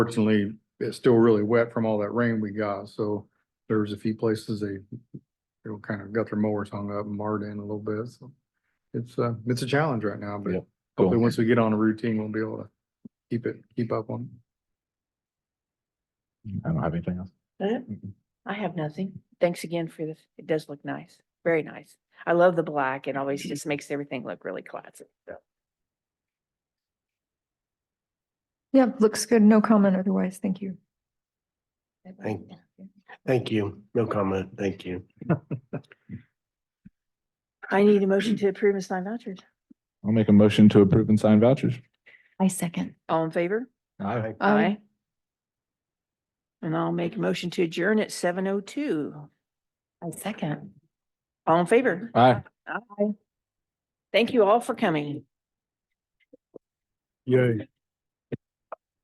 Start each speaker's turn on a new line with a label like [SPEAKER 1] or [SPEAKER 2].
[SPEAKER 1] Fortunately, it's still really wet from all that rain we got, so there was a few places they, they were kind of got their mowers hung up and marred in a little bit, so. It's uh it's a challenge right now, but
[SPEAKER 2] Yep.
[SPEAKER 1] hopefully,
[SPEAKER 2] Cool.
[SPEAKER 1] once we get on a routine, we'll be able to keep it, keep up on.
[SPEAKER 2] I don't have anything else.
[SPEAKER 3] That- I have nothing. Thanks again for this. It does look nice, very nice. I love the black. It always just makes everything look really classy. So
[SPEAKER 4] Yep, looks good. No comment otherwise. Thank you.
[SPEAKER 5] Thank- Thank you. No comment. Thank you.
[SPEAKER 3] I need a motion to approve and sign vouchers.
[SPEAKER 2] I'll make a motion to approve and sign vouchers.
[SPEAKER 4] I second.
[SPEAKER 3] All in favor?
[SPEAKER 2] Aye.
[SPEAKER 3] And I'll make a motion to adjourn at seven oh two.
[SPEAKER 4] I second.
[SPEAKER 3] All in favor?
[SPEAKER 2] Aye.
[SPEAKER 3] Aye. Thank you all for coming.
[SPEAKER 1] Yay.